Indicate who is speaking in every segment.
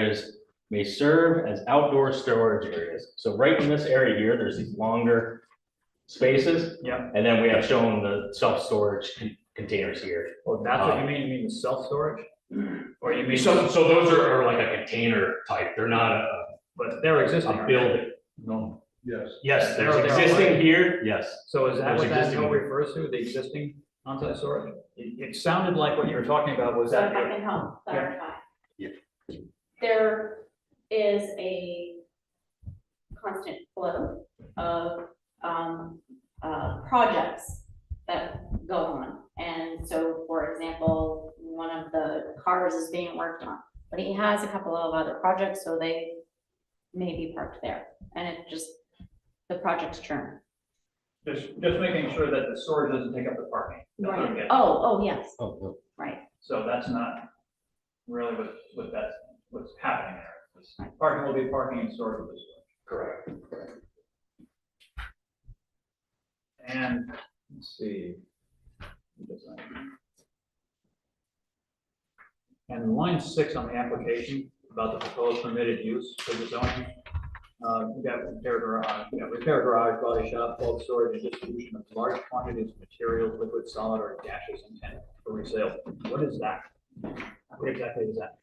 Speaker 1: areas may serve as outdoor storage areas. So right in this area here, there's these longer spaces.
Speaker 2: Yeah.
Speaker 1: And then we have shown the self-storage con- containers here.
Speaker 2: Well, Oh, that's what you mean, you mean the self-storage? Or you mean,
Speaker 3: Uh, Mm-hmm. So, so those are, are like a container type, they're not a,
Speaker 2: but they're existing.
Speaker 3: a
Speaker 2: aren't they?
Speaker 3: building.
Speaker 2: No.
Speaker 4: Yes.
Speaker 3: Yes, there's
Speaker 2: They're- they're
Speaker 3: existing
Speaker 2: already-
Speaker 3: here, yes.
Speaker 2: So is that
Speaker 3: There's
Speaker 2: what that
Speaker 3: existing-
Speaker 2: note refers to, the existing onsite storage? It, it sounded like what you were talking about was
Speaker 5: So
Speaker 2: that.
Speaker 5: if I can help clarify.
Speaker 3: Yeah.
Speaker 5: There is a constant flow of, um, uh, projects that go on. And so, for example, one of the cars is being worked on, but he has a couple of other projects, so they may be parked there. And it just, the projects churn.
Speaker 2: Just, just making sure that the storage doesn't take up the parking. That's what I'm getting.
Speaker 5: Oh, oh, yes,
Speaker 1: Oh, no.
Speaker 5: right.
Speaker 2: So that's not really what, what that's, what's happening there. Parking will be parking and storage will be storage.
Speaker 3: Correct.
Speaker 2: And, let's see. And line six on the application about the proposed permitted use for the zoning. Uh, you got repair garage, you got repair garage, body shop, bulk storage, and distribution of large quantities of materials, liquid, solid, or gashes intended for resale. What is that? What exactly is that?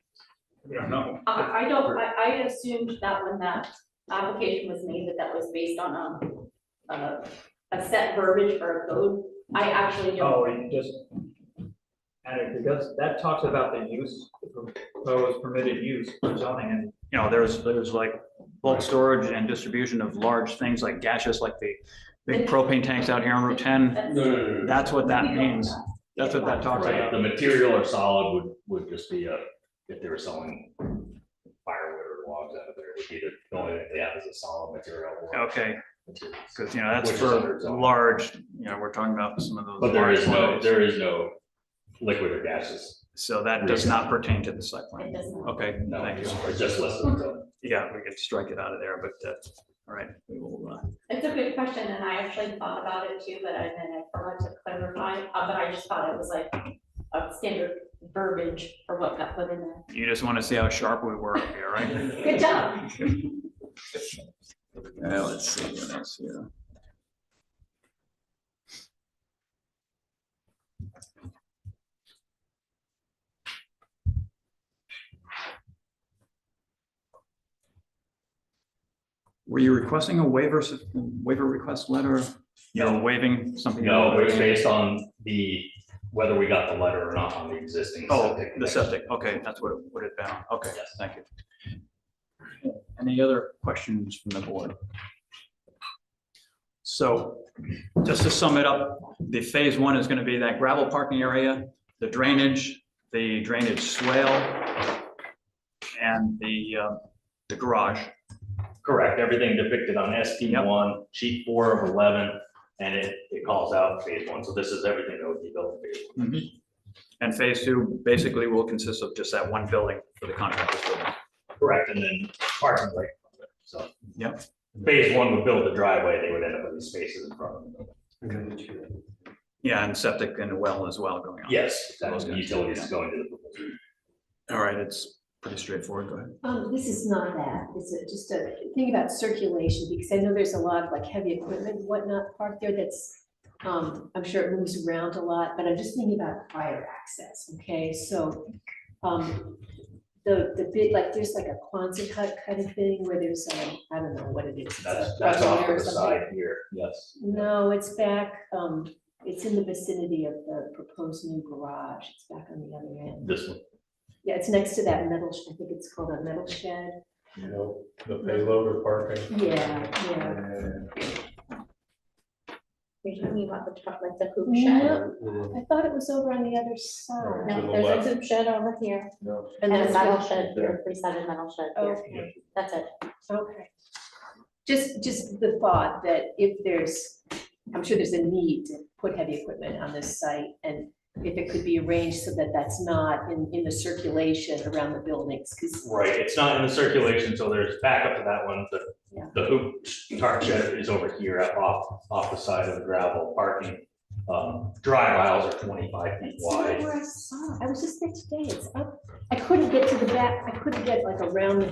Speaker 2: We don't know.
Speaker 5: Uh, I, I don't, I, I assumed that when that application was made, that that was based on a, a, a set verbiage for a code. I actually don't,
Speaker 2: Oh, you just added, because that talks about the use, the proposed permitted use for zoning and. You know, there's, there's like bulk storage and distribution of large things like gaseous, like the big propane tanks out here on Route ten.
Speaker 5: that's.
Speaker 3: No, no, no, no, no.
Speaker 2: That's what
Speaker 5: we
Speaker 2: that
Speaker 5: don't
Speaker 2: means.
Speaker 5: know.
Speaker 2: That's what that talks
Speaker 3: Right,
Speaker 2: about.
Speaker 3: the material or solid would, would just be a, if they were selling firewood or logs out of there, it would be the, the only thing they have is a solid material. or
Speaker 2: Okay,
Speaker 3: materials.
Speaker 2: because you know, that's
Speaker 3: Which is
Speaker 2: for
Speaker 3: under zoning.
Speaker 2: large, you know, we're talking about some of those.
Speaker 3: But there
Speaker 2: large
Speaker 3: is no,
Speaker 2: loads.
Speaker 3: there is no liquid or gases.
Speaker 2: So that does not pertain to the site
Speaker 5: It
Speaker 2: plan.
Speaker 5: doesn't.
Speaker 2: Okay,
Speaker 3: No,
Speaker 2: thank you.
Speaker 3: it's just listed.
Speaker 2: Yeah, we could strike it out of there, but, uh, all right, we will, uh,
Speaker 5: It's a good question, and I actually thought about it too, but I, then I forgot to clarify, uh, but I just thought it was like a standard verbiage for what got put in there.
Speaker 2: You just want to see how sharp we were up here, right?
Speaker 5: Good job.
Speaker 2: Yeah, let's see what else here. Were you requesting a waiver, s- waiver request letter? No. Waiving something?
Speaker 3: No, it's based on the, whether we got the letter or not on the existing.
Speaker 2: Oh,
Speaker 3: septic
Speaker 2: the
Speaker 3: connection.
Speaker 2: septic, okay, that's what it would have been, on. okay, yes, thank you. Any other questions from the board? So, just to sum it up, the phase one is gonna be that gravel parking area, the drainage, the drainage swale, and the, uh, the garage.
Speaker 3: Correct, everything depicted on SP one, sheet four of eleven, and it, it calls out phase one, so this is everything that would be built in phase one.
Speaker 2: And phase two basically will consist of just that one building for the contractor's building.
Speaker 3: Correct, and then parking right, from it, so.
Speaker 2: Yep.
Speaker 3: Phase one would build the driveway, they would end up with these spaces in front of them.
Speaker 2: Yeah, and septic and well as well going on.
Speaker 3: Yes, that was
Speaker 2: Those guys,
Speaker 3: utilities
Speaker 2: yeah.
Speaker 3: going to the. proposal.
Speaker 2: All right, it's pretty straightforward, go ahead.
Speaker 6: Um, this is not that, it's a- just a thing about circulation, because I know there's a lot of like heavy equipment, and whatnot parked there that's, um, I'm sure it moves around a lot, but I'm just thinking about fire access, okay, so, um, the, the big, like, there's like a Quonset hut kind of thing where there's, um, I don't know what it is. it's
Speaker 3: That's,
Speaker 6: a
Speaker 3: that's off to
Speaker 6: or
Speaker 3: the
Speaker 6: something.
Speaker 3: side here, yes.
Speaker 6: No, it's back, um, it's in the vicinity of the proposed new garage, it's back on the other end.
Speaker 3: This one.
Speaker 6: Yeah, it's next to that metal, sh- I think it's called a metal shed.
Speaker 4: You know, the payload or parking.
Speaker 6: Yeah, yeah.
Speaker 4: And
Speaker 5: You're talking about the top, like the hoop
Speaker 6: No,
Speaker 4: we're-
Speaker 6: I thought it was over on the other side.
Speaker 4: No, To the there's a left.
Speaker 5: hoop shed over here.
Speaker 4: no,
Speaker 5: And a
Speaker 6: that's
Speaker 5: metal
Speaker 6: not-
Speaker 5: shed, or freestanding metal shed here,
Speaker 6: Okay,
Speaker 5: that's it.
Speaker 6: okay. Just, just the thought that if there's, I'm sure there's a need to put heavy equipment on this site and if it could be arranged so that that's not in, in the circulation around the buildings, because,
Speaker 3: Right, it's not in the circulation, so there's back up to that one, the,
Speaker 6: Yeah.
Speaker 3: the hoop tarp shed is over here up off, off the side of the gravel parking. Um, drive aisles are twenty-five feet
Speaker 6: That's not
Speaker 3: wide.
Speaker 6: where I saw, it. I was just there today, it's up, I couldn't get to the back, I couldn't get like around the